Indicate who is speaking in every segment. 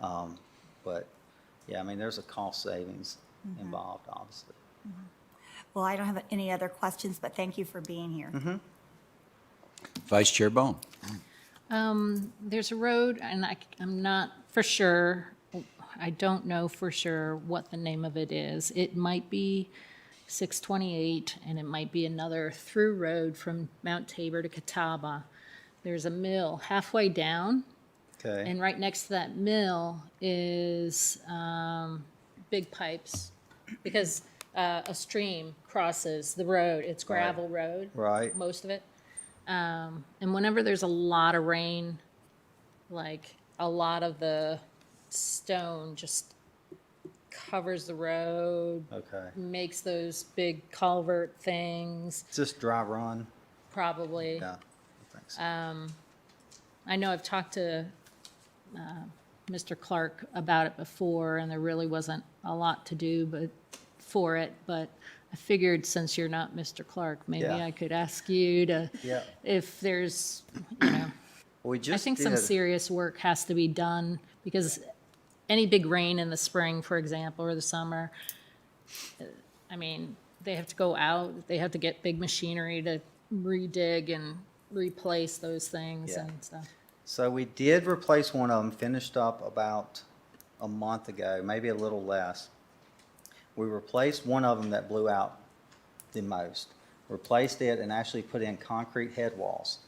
Speaker 1: Um, But, yeah, I mean, there's a cost savings
Speaker 2: Mm-hmm.
Speaker 1: involved, obviously.
Speaker 3: Well, I don't have any other questions, but thank you for being here.
Speaker 4: Vice Chair Bone.
Speaker 2: There's a road, and I, am not for sure, I don't know for sure what the name of it is. It might be 628, and it might be another through road from Mount Tabor to Catawba. There's a mill halfway down,
Speaker 1: Okay,
Speaker 2: and right next to that mill is um, big pipes, because uh, a stream crosses the road. It's gravel road
Speaker 1: right,
Speaker 2: most of it. Um, and whenever there's a lot of rain, like a lot of the stone just covers the road,
Speaker 1: okay.
Speaker 2: makes those big culvert things,
Speaker 1: It's just dry run,
Speaker 2: probably.
Speaker 1: yeah, I think
Speaker 2: Uh,
Speaker 1: so.
Speaker 2: I know I've talked to uh, Mr. Clark about it before, and there really wasn't a lot to do but for it, but I figured since you're not Mr. Clark, maybe
Speaker 1: Yeah.
Speaker 2: I could ask you to,
Speaker 1: Yeah.
Speaker 2: if there's, you know,
Speaker 1: We
Speaker 2: I
Speaker 1: just
Speaker 2: think some
Speaker 1: did-
Speaker 2: serious work has to be done because any big rain in the spring, for example, or the summer, uh, I mean, they have to go out, they have to get big machinery to redig and replace those things
Speaker 1: Yeah.
Speaker 2: and stuff.
Speaker 1: So we did replace one of them, finished up about a month ago, maybe a little less. We replaced one of them that blew out the most. Replaced it and actually put in concrete head walls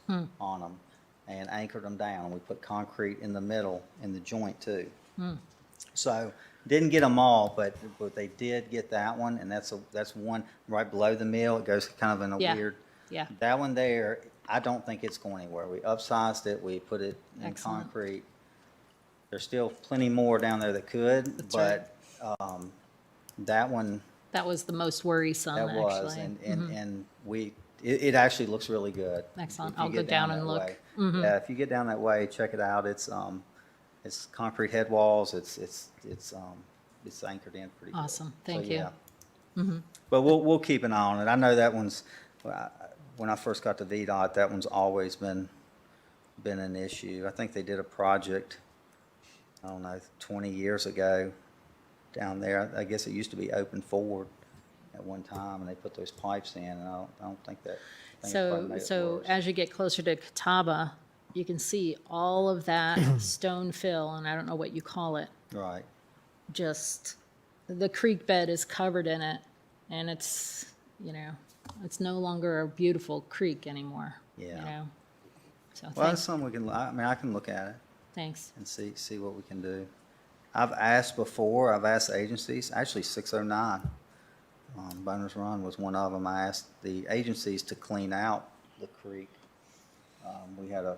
Speaker 1: on them and anchored them down. We put concrete in the middle in the joint too. So didn't get them all, but, but they did get that one and that's, a that's one right below the mill. It goes kind of in a
Speaker 2: Yeah,
Speaker 1: weird.
Speaker 2: yeah.
Speaker 1: That one there, I don't think it's going anywhere. We upsized it, we put it in
Speaker 2: Excellent.
Speaker 1: concrete. There's still plenty more down there that could,
Speaker 2: right.
Speaker 1: but, um, that one,
Speaker 2: That was the Mm-hmm. most worrisome,
Speaker 1: that was,
Speaker 2: actually.
Speaker 1: and, and, and we, it, it actually looks really good.
Speaker 2: Excellent.
Speaker 1: If you
Speaker 2: I'll
Speaker 1: get
Speaker 2: go down and
Speaker 1: that
Speaker 2: look. Mm-hmm.
Speaker 1: way. Yeah, if you get down that way, check it out. It's, um, it's concrete head walls, it's, it's, it's, um, it's anchored in pretty good.
Speaker 2: Awesome.
Speaker 1: So,
Speaker 2: Thank you. Mm-hmm.
Speaker 1: yeah. But we'll, we'll keep an eye on it. I know that one's, when I- when I first got to VDOT, that one's always been, been an issue. I think they did a project, I don't know, twenty years ago down there. I guess it used to be open forward at one time, and they put those pipes in, and I don't, I don't think that. I think it probably
Speaker 2: So,
Speaker 1: made it
Speaker 2: so
Speaker 1: worse.
Speaker 2: as you get closer to Catawba, you can see all of that stone fill, and I don't know what you call it,
Speaker 1: Right,
Speaker 2: just, the creek bed is covered in it, and it's, you know, it's no longer a beautiful creek anymore. you
Speaker 1: Yeah.
Speaker 2: know? So,
Speaker 1: well,
Speaker 2: thank-
Speaker 1: that's something we can, I I mean, I can look at it.
Speaker 2: thanks.
Speaker 1: and see, see what we can do. I've asked before, I've asked agencies, actually six oh nine, um, Boners Run was one of them. I asked the agencies to clean out the creek. Um, we had a,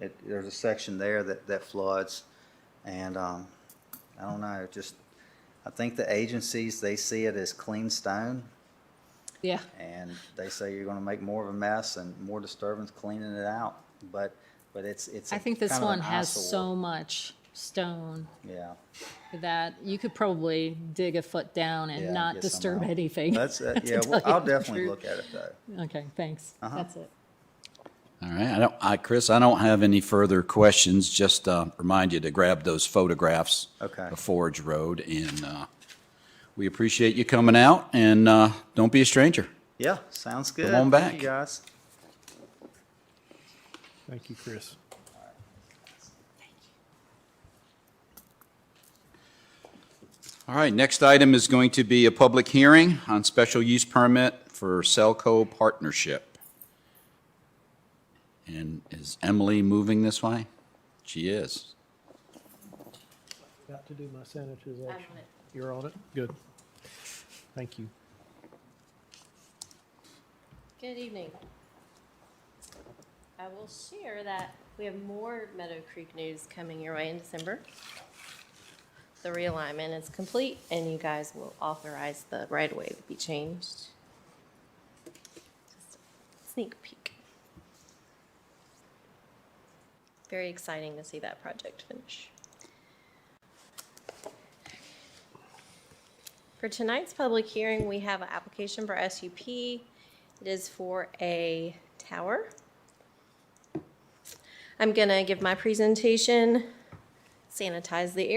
Speaker 1: it, there's a section there that, that floods and, um, I don't know, it just, I think the agencies, they see it as clean stone
Speaker 2: Yeah,
Speaker 1: and they say you're gonna make more of a mess and more disturbance cleaning it out. But, but it's, it's. a
Speaker 2: I think this
Speaker 1: kind of an
Speaker 2: one has
Speaker 1: eyesore.
Speaker 2: so much stone
Speaker 1: Yeah.
Speaker 2: that you could probably dig a foot down
Speaker 1: Yeah,
Speaker 2: and not
Speaker 1: get some
Speaker 2: disturb
Speaker 1: out.
Speaker 2: anything.
Speaker 1: That's, uh,
Speaker 2: to
Speaker 1: yeah,
Speaker 2: tell
Speaker 1: well,
Speaker 2: you
Speaker 1: I'll
Speaker 2: the
Speaker 1: definitely
Speaker 2: truth.
Speaker 1: look at Uh-huh. it though.
Speaker 2: Okay, thanks. That's it.
Speaker 4: All right, I don't, I, Chris, I don't have any further questions. Just, uh, remind you to grab those photographs.
Speaker 1: Okay.
Speaker 4: Of Forge Road and, uh, we appreciate you coming out and, uh, don't be a stranger.
Speaker 1: Yeah, sounds good.
Speaker 4: on
Speaker 1: Thank you,
Speaker 4: back.
Speaker 1: guys.
Speaker 5: Thank you, Chris.
Speaker 4: All right, next item is going to be a public hearing on special use permit for Selco Partnership. And is Emily moving this way? She is.
Speaker 5: Got to do my sanitization. You're on it? Good. Thank you.
Speaker 6: Good evening. I will share that we have more Meadow Creek news coming your way in December. The realignment is complete, and you guys will authorize the right-of-way to be changed. Just a Sneak peek. Very exciting to see that project finish. For tonight's public hearing, we have an application for SUP. It is for a tower. I'm gonna give my presentation, sanitize the